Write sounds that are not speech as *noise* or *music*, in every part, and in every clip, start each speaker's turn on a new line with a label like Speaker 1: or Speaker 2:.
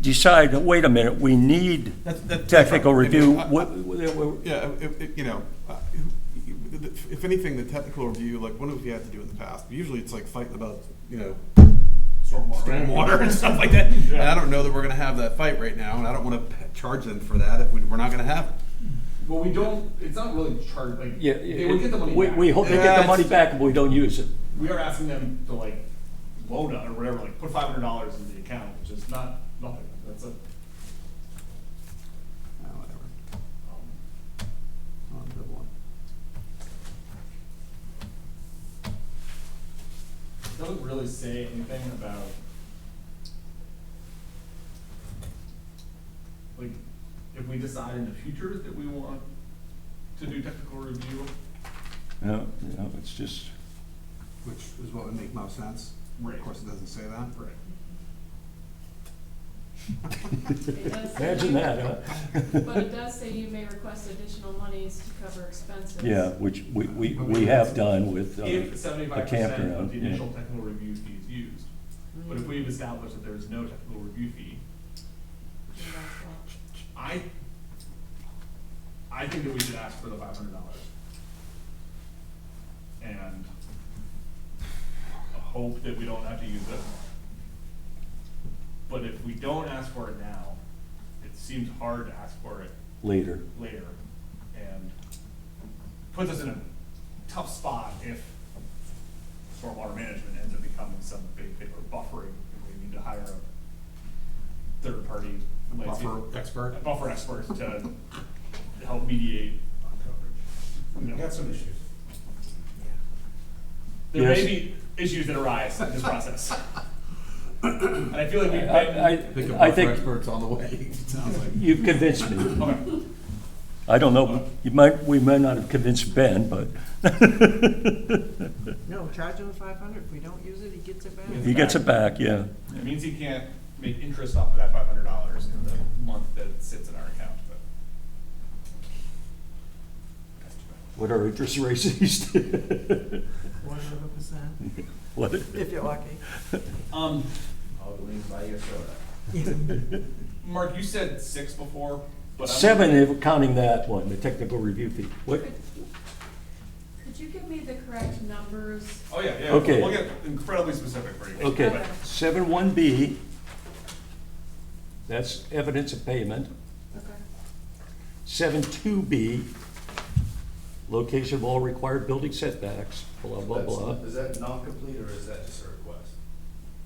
Speaker 1: decide, wait a minute, we need
Speaker 2: That's- that's
Speaker 1: technical
Speaker 2: different.
Speaker 1: review,
Speaker 2: I- I-
Speaker 1: what- what-
Speaker 2: Yeah, if, if, you know, uh, if if anything, the technical review, like one of we had to do in the past, usually it's like fighting about, you know, stormwater and stuff like that. And I don't know that we're gonna have that fight right now, and I don't wanna p- charge them for that if we- we're not gonna have it.
Speaker 3: Well, we don't, it's not really charged, like,
Speaker 1: yeah,
Speaker 3: they would get the money
Speaker 1: we,
Speaker 3: back.
Speaker 1: we hope they get the
Speaker 2: That's-
Speaker 1: money back and we don't use it.
Speaker 3: We are asking them to like load up or whatever, like put five hundred dollars in the account, which is not, nothing, that's a, um,
Speaker 2: Ah, whatever. On to one.
Speaker 3: it doesn't really say anything about like, if we decide in the future that we want to do technical review,
Speaker 1: No, no, it's *laughs* just,
Speaker 2: Which is what would make most sense.
Speaker 3: Right.
Speaker 2: Of course, it doesn't say that. *laughs*
Speaker 3: right?
Speaker 4: It does say
Speaker 1: imagine
Speaker 4: you-
Speaker 1: that, huh?
Speaker 4: But it does say you may request additional monies to cover expenses.
Speaker 1: *laughs* Yeah, which we, we, we have done with uh,
Speaker 3: If
Speaker 1: a
Speaker 3: seventy-five percent
Speaker 1: campground.
Speaker 3: of the
Speaker 1: yeah.
Speaker 3: initial technical review fee is used, but if we've established that there is no technical review fee,
Speaker 4: Mm-hmm. And that's all.
Speaker 3: I, I think that we should ask for the five hundred dollars. And hope that we don't have to use it. But if we don't ask for it now, it seems hard to ask for it
Speaker 1: Later,
Speaker 3: later and puts us in a tough spot if stormwater management ends up becoming some big, big, or buffering, and we need to hire a third-party landscape
Speaker 2: Buffer expert.
Speaker 3: a buffer expert to help mediate. We've got some issues. There may
Speaker 1: Yes.
Speaker 3: be issues that arise in this process. And I feel like we've
Speaker 1: I,
Speaker 3: been,
Speaker 2: Pick
Speaker 1: I,
Speaker 2: up
Speaker 1: I
Speaker 2: our
Speaker 1: think
Speaker 2: experts on the way, it sounds like.
Speaker 1: you've convinced me.
Speaker 3: okay,
Speaker 1: I don't know, you might, we might not have convinced Ben, but *laughs*
Speaker 5: No, charge him five hundred, if we don't use it, he gets it back.
Speaker 1: he gets it back, yeah.
Speaker 3: it means he can't make interest off of that five hundred dollars in the month that it sits in our account, but. That's too bad.
Speaker 1: What are interest rates *laughs* these days?
Speaker 5: One hundred percent,
Speaker 1: What?
Speaker 5: if you're lucky.
Speaker 3: Um,
Speaker 6: I'll go in and buy you a soda.
Speaker 3: *laughs* Mark, you said six before, but I'm.
Speaker 1: Seven, if counting that one, the technical review fee. What,
Speaker 4: Could could you give me the correct numbers?
Speaker 3: Oh, yeah, yeah,
Speaker 1: Okay.
Speaker 3: we'll get incredibly specific for you.
Speaker 1: Okay,
Speaker 4: Okay.
Speaker 1: seven one B, that's evidence of payment.
Speaker 4: Okay.
Speaker 1: Seven two B, location of all required building setbacks, blah, blah,
Speaker 6: That's-
Speaker 1: blah,
Speaker 6: Is that not complete or is that just a request?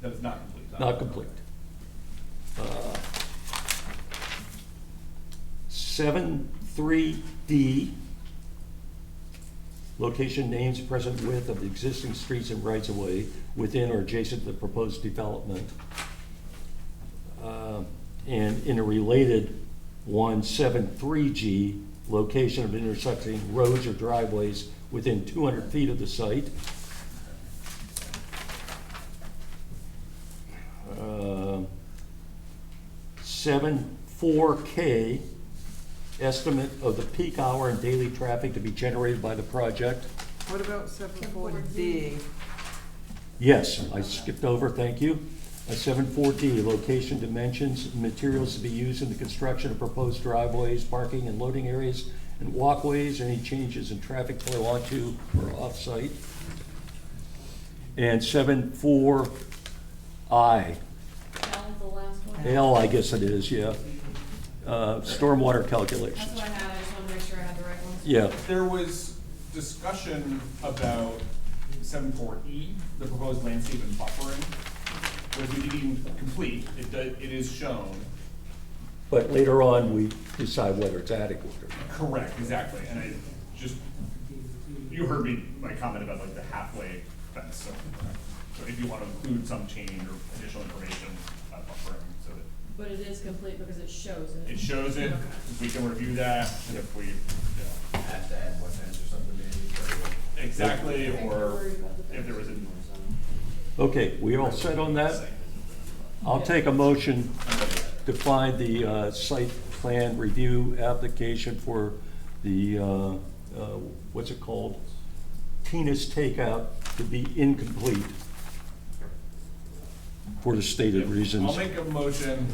Speaker 3: That is not complete.
Speaker 1: not complete. Uh, Seven three D, location names present with of the existing streets and rights of way within or adjacent to the proposed development. Uh, And in a related one, seven, three G, location of intersecting roads or driveways within two hundred feet of the site. Um, Seven, four K, estimate of the peak hour and daily traffic to be generated by the project.
Speaker 5: What about seven forty D?
Speaker 1: Yes, I skipped over, thank you. Seven four D, location, dimensions, materials to be used in the construction of proposed driveways, parking and loading areas, and walkways, any changes in traffic flow onto or off-site. And seven four I,
Speaker 4: Al, the last one.
Speaker 1: L, I guess it is, yeah, Uh, stormwater
Speaker 4: That's
Speaker 1: calculations.
Speaker 4: what I had, I just wanted to make sure I had the right ones.
Speaker 1: Yeah,
Speaker 3: There was discussion about seven four E, the proposed landscape and buffering, which we didn't even complete, it does, it is shown.
Speaker 1: but later on, we decide whether it's adequate or not.
Speaker 3: Correct, exactly, and I just, you heard me, my comment about like the halfway fence, so, so if you wanna include some change or additional information about buffering, so that
Speaker 4: But it is complete because it shows it.
Speaker 3: it shows it, we can review that, and if we, yeah.
Speaker 6: Have to add one fence or something maybe, or-
Speaker 3: Exactly,
Speaker 4: I think we're
Speaker 3: or
Speaker 4: worried about the
Speaker 3: if there was a-
Speaker 4: fence or
Speaker 1: Okay, we all set on that? I'll take a motion to find the uh, site plan review application for the, uh, uh, what's it called? Tina's Takeout to be incomplete for the stated reasons.
Speaker 3: I'll make a motion